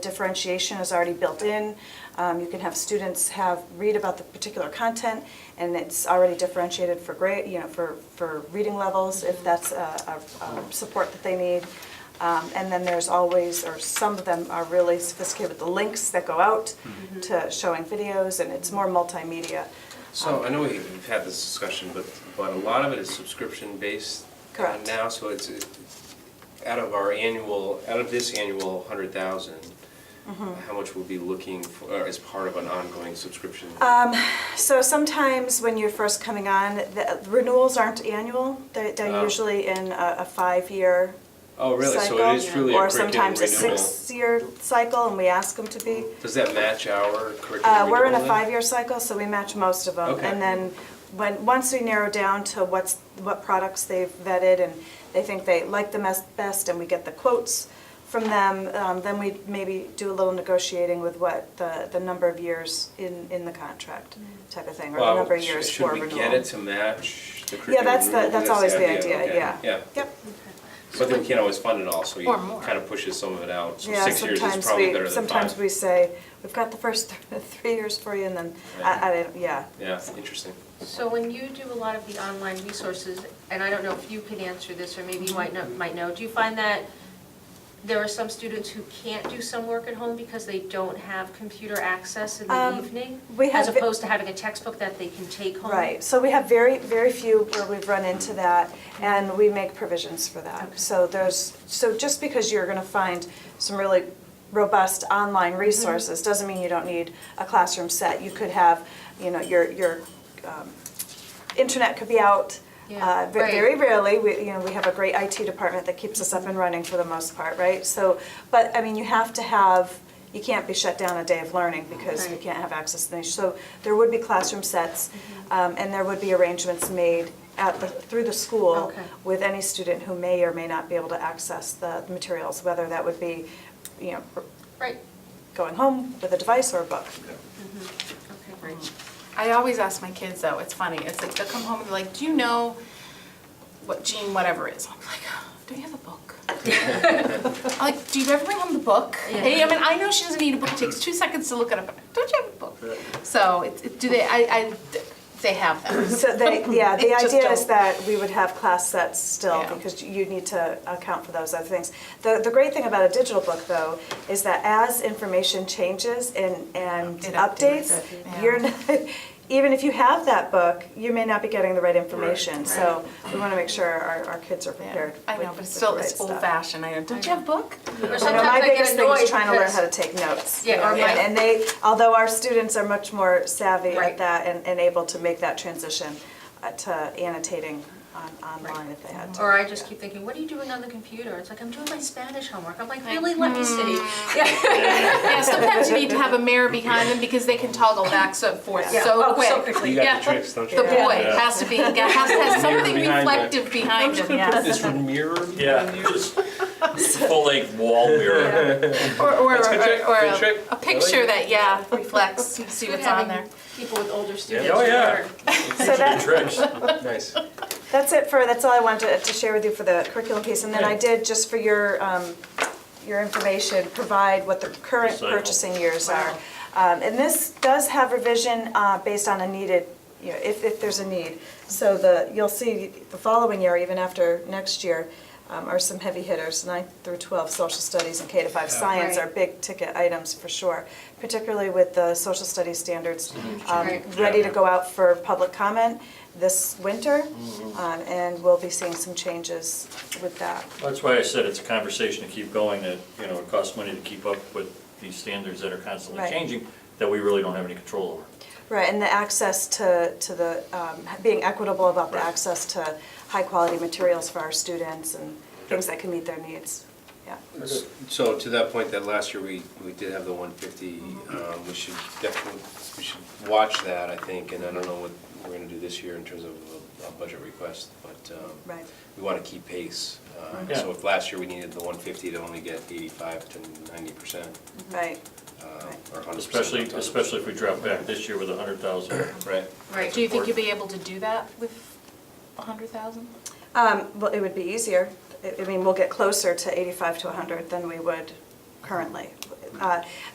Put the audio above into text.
differentiation is already built in. Um, You can have students have, read about the particular content, and it's already differentiated for grade, you know, for, for reading levels, if that's a, a- a support that they need. Um, And then there's always, or some of them are really sophisticated with the links that go out to showing videos, and it's more multimedia. So I know we- we've had this discussion, but, but a lot of it is subscription-based uh, Correct. now, so it's, it- out of our annual, out of this annual hundred thousand, Mm-hmm. how much we'll be looking for, or as part of an ongoing subscription? Uh, So sometimes when you're first coming on, the renewals aren't annual. They're, they're Oh. usually in a, a five-year Oh, really? cycle. So it is truly a Or curriculum sometimes a renewal? six-year cycle, and we ask them to be. Does that match our curriculum Uh, we're in a renewal then? five-year cycle, so we match most of them. Okay. And then when, once we narrow down to what's, what products they've vetted and they think they like the mes- best and we get the quotes from them, um, then we maybe do a little negotiating with what the, the number of years in, in the contract type of thing, or the Well, number of sh- years for renewal. Should we get it to match the Yeah, curriculum that's the, renewal? that's always the idea, okay. yeah. Yeah. Yep, But then we can't always fund it all, so you Or more. kind of pushes some of it out. So yeah, six years is sometimes probably better we, than five. sometimes we say, we've got the first th- three years for you, and then, I, I, don't- yeah. Yeah, interesting. So when you do a lot of the online resources, and I don't know if you can answer this, or maybe you might know, might know, do you find that there are some students who can't do some work at home because they don't have computer access in the Um, evening? we have As vi- opposed to having a textbook that they can take home? Right, so we have very, very few where we've run into that, and we make provisions for that. So there's, so just because you're gonna find some really robust online Mm-hmm. resources, doesn't mean you don't need a classroom set. You could have, you know, your, your um, internet could be out. Yeah, uh, ve- right. Very rarely, we, you know, we have a great IT department that keeps us up and running for the most part, right? So, but, I mean, you have to have, you can't be shut down a day of learning because you Right. can't have access to these. So there would be classroom sets, Mm-hmm. um, and there would be arrangements made at the, through the school Okay. with any student who may or may not be able to access the materials, whether that would be, you know, Right, going home with a device or a book. okay, great. I always ask my kids though, it's funny, it's like they'll come home and be like, do you know what Gene whatever is? I'm like, do you have a book? I'm like, do you ever bring home the book? Yeah. Hey, I mean, I know she doesn't need a book, it takes two seconds to look it up, don't you have a book? So, it, it- do they, I, I, they have them. So they, yeah, They the just idea is don't. that we would have class sets still, Yeah. because you need to account for those other things. The, the great thing about a digital book, though, is that as information changes and, and It updates updates, it, yeah. you're, not- even if you have that book, you may not be getting the right information. So we want to make sure our, our kids are Yeah. prepared. I with- know, but it's with still, the it's right old stuff. fashioned, I know, don't you have a book? Or You know, my sometimes I biggest get thing annoyed is trying to learn because- how to take notes. Yeah, or you know, my- And they, although our students are much more savvy at Right. that and, and able to make that transition uh, to annotating on, online if they had to. Or I just keep thinking, what are you doing on the computer? It's like, I'm doing my Spanish homework. I'm like, really, let me see. Mm. Yeah. Yeah, sometimes you need to have a mirror behind them because they can toggle back so forth Yeah. so Oh, quick. so You quickly. got Yeah. the tricks, don't you? The boy Yeah. has to be, has to have something behind it. reflective behind him, yes. This would mirror. me. Yeah, just full length wall mirror. Or, or, That's a good trick, or, or good a, trick. a picture that, yeah, reflects, you see what's on there. Having People with older students. Oh, yeah. who are- So that, Tricks. Nice. that's it for, that's all I wanted to share with you for the curriculum piece. And then I did, just for your, um, your information, provide what the current Recycle. purchasing years are. Um, And this does have revision uh, based on a needed, you know, if, if there's a need. So the, you'll see the following year, even after next year, um, are some heavy hitters. Ninth through 12 social studies and K to 5 science Right. are big ticket items for sure, particularly with the social studies standards um, Right. ready to go out for public comment this winter. Um, And we'll be seeing some changes with that. That's why I said it's a conversation to keep going, that, you know, it costs money to keep up with these standards that are constantly Right. changing, that we really don't have any control over. Right, and the access to, to the, um, being equitable about the Right. access to high-quality materials for our students and things that can meet their needs, yeah. So to that point, that last year, we, we did have the one fifty, um, we should definitely, we should watch that, I think, and I don't know what we're gonna do this year in terms of a, a budget request, but, um, Right. we wanna keep pace. Uh, Mhm. So if last year we needed the one fifty to only get eighty-five to ninety percent, Right, uh, Right. or hundred percent. Especially, especially if we drop back this year with a hundred thousand. Right. Right. Do you think you'd be able to do that with a hundred thousand? um, well, it would be easier, I I mean, we'll get closer to eighty-five to hundred than we would currently. uh,